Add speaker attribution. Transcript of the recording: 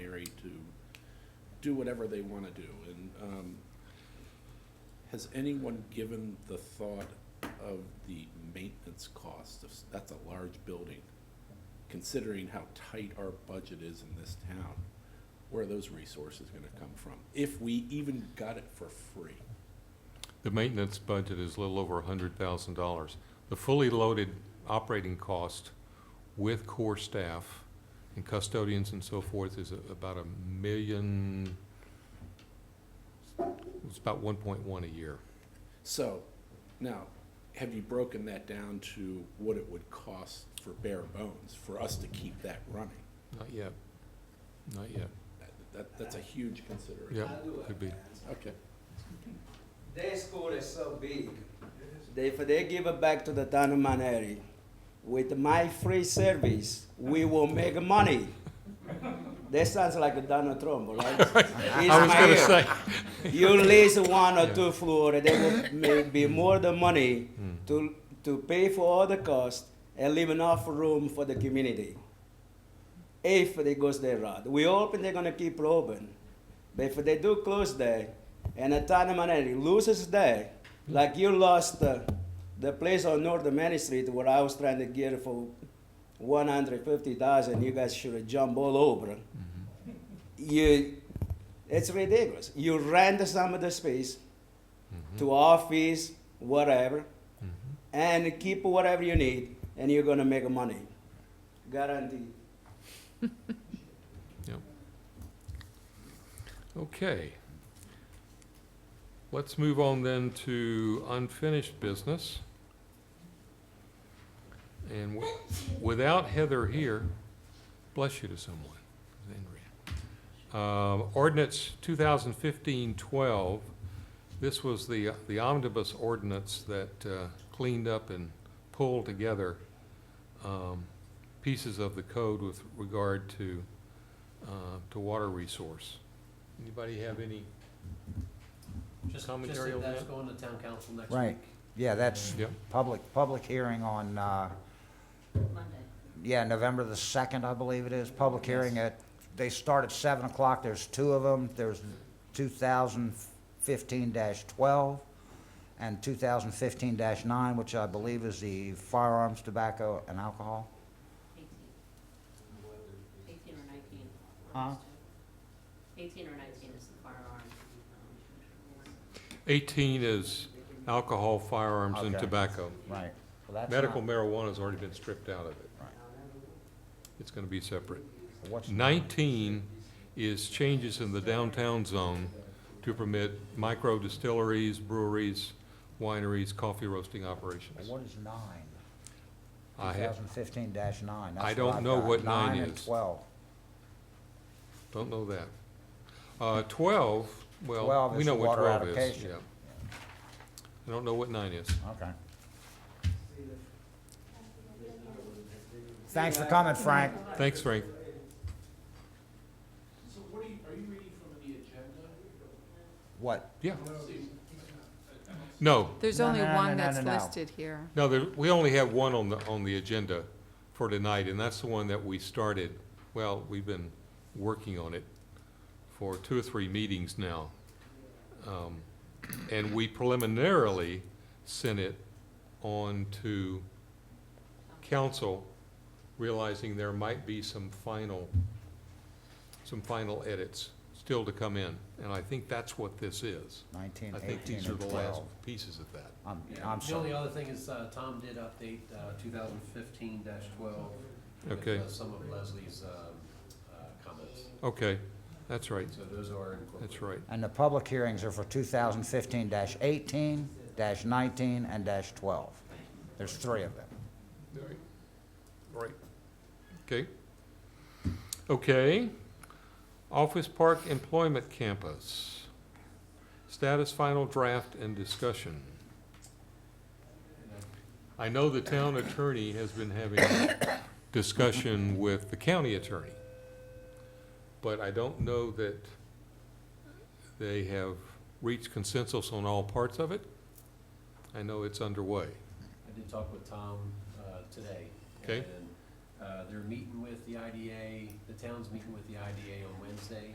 Speaker 1: do whatever they want to do. And um, has anyone given the thought of the maintenance cost? of s- That's a large building, considering how tight our budget is in this town. Where are those resources going to come from? If we even got it for free?
Speaker 2: The maintenance budget is a little over hundred thousand dollars. The fully loaded operating cost with core staff and custodians and so forth is a- about a million, it's about one point one a year.
Speaker 1: So, now, have you broken that down to what it would cost for bare bones, for us to keep that running?
Speaker 2: Not yet, not yet.
Speaker 1: That- That, that's a huge consideration.
Speaker 2: Yeah,
Speaker 3: I do
Speaker 2: could be.
Speaker 1: Okay.
Speaker 3: Their school is so big. They, If they give it back to the town of Manhattan, with my free service, we will make money. That sounds like Donald Trump, right? He's
Speaker 2: I was
Speaker 3: my
Speaker 2: gonna
Speaker 3: ear.
Speaker 2: say,
Speaker 3: You lease one or
Speaker 2: Yeah. Hmm.
Speaker 3: two floor, and there will may be more the money to, to pay for all the cost and leave enough room for the community. If they goes their route, we hoping they're gonna keep open. But if they do close there, and the town of Manatee loses there, like you lost uh, the place on North Main Street where I was trying to get it for one hundred fifty thousand, you guys should have jumped all over. You, it's ridiculous. You rent some of the space
Speaker 2: Mm-hmm.
Speaker 3: to office, whatever, and keep whatever you need, and you're gonna make money. Guaranteed.
Speaker 2: okay. Let's move on then to unfinished business. And wi- without Heather here, bless you to someone, Andrea. Um, Ordinance 2015-12, this was the, the omnibus ordinance that uh, cleaned up and pulled together um, pieces of the code with regard to, uh, to water resource. Anybody have any?
Speaker 4: Just, just
Speaker 2: Commentary on
Speaker 4: that that's
Speaker 2: that?
Speaker 4: going to town council next week.
Speaker 5: Right, yeah, that's
Speaker 2: Yep.
Speaker 5: public, public hearing on, uh, yeah, November the second, I believe it is, public hearing at, they start at seven o'clock, there's two of them, there's two thousand fifteen twelve and two thousand fifteen nine, which I believe is the firearms, tobacco, and alcohol.
Speaker 6: Eighteen or nineteen.
Speaker 5: Huh?
Speaker 6: Eighteen or nineteen is the firearm. um,
Speaker 2: 18 is alcohol, firearms, and
Speaker 5: Okay.
Speaker 2: tobacco.
Speaker 5: Right. Well, that's
Speaker 2: Medical
Speaker 5: not-
Speaker 2: marijuana's already been stripped out of it.
Speaker 5: Right.
Speaker 2: It's gonna be separate.
Speaker 5: What's,
Speaker 2: Nineteen is changes in the downtown zone to permit micro distilleries, breweries, wineries, coffee roasting operations.
Speaker 5: what is nine?
Speaker 2: I
Speaker 5: Two
Speaker 2: ha-
Speaker 5: thousand fifteen nine.
Speaker 2: I don't know what nine
Speaker 5: Nine and
Speaker 2: is.
Speaker 5: twelve.
Speaker 2: don't know that. Uh, twelve, well,
Speaker 5: 12
Speaker 2: we
Speaker 5: is
Speaker 2: know
Speaker 5: the
Speaker 2: what
Speaker 5: water
Speaker 2: twelve is,
Speaker 5: allocation.
Speaker 2: yeah. I don't know what nine is.
Speaker 5: Okay. Thanks for coming, Frank.
Speaker 2: Thanks, Frank.
Speaker 1: So what are you, are you reading from the agenda?
Speaker 5: What?
Speaker 2: Yeah. No,
Speaker 7: There's
Speaker 5: No,
Speaker 7: only
Speaker 5: no, no, no,
Speaker 7: one
Speaker 5: no,
Speaker 7: that's
Speaker 5: no, no.
Speaker 7: listed here.
Speaker 2: No, there, we only have one on the, on the agenda for tonight, and that's the one that we started, well, we've been working on it for two or three meetings now. Um, And we preliminarily sent it on to council, realizing there might be some final, some final edits still to come in. And I think that's what this is.
Speaker 5: Nineteen,
Speaker 2: I think
Speaker 5: eighteen,
Speaker 2: these are
Speaker 5: and
Speaker 2: the last
Speaker 5: twelve.
Speaker 2: pieces of that.
Speaker 5: I'm, I'm
Speaker 4: The only
Speaker 5: sorry.
Speaker 4: other thing is, uh, Tom did update, uh, two thousand fifteen twelve. uh,
Speaker 2: Okay.
Speaker 4: Some of Leslie's, um, uh, comments,
Speaker 2: Okay, that's right,
Speaker 4: so those are incorporated.
Speaker 2: that's right.
Speaker 5: And the public hearings are for two thousand fifteen eighteen, nineteen, and twelve. There's three of them.
Speaker 2: Right. Right. Okay. Okay. Office Park Employment Campus. Status final draft and discussion. I know the town attorney has been having discussion with the county attorney. But I don't know that they have reached consensus on all parts of it. I know it's underway.
Speaker 4: I did talk with Tom uh, today.
Speaker 2: Okay.
Speaker 4: And uh, they're meeting with the IDA, the town's meeting with the IDA on Wednesday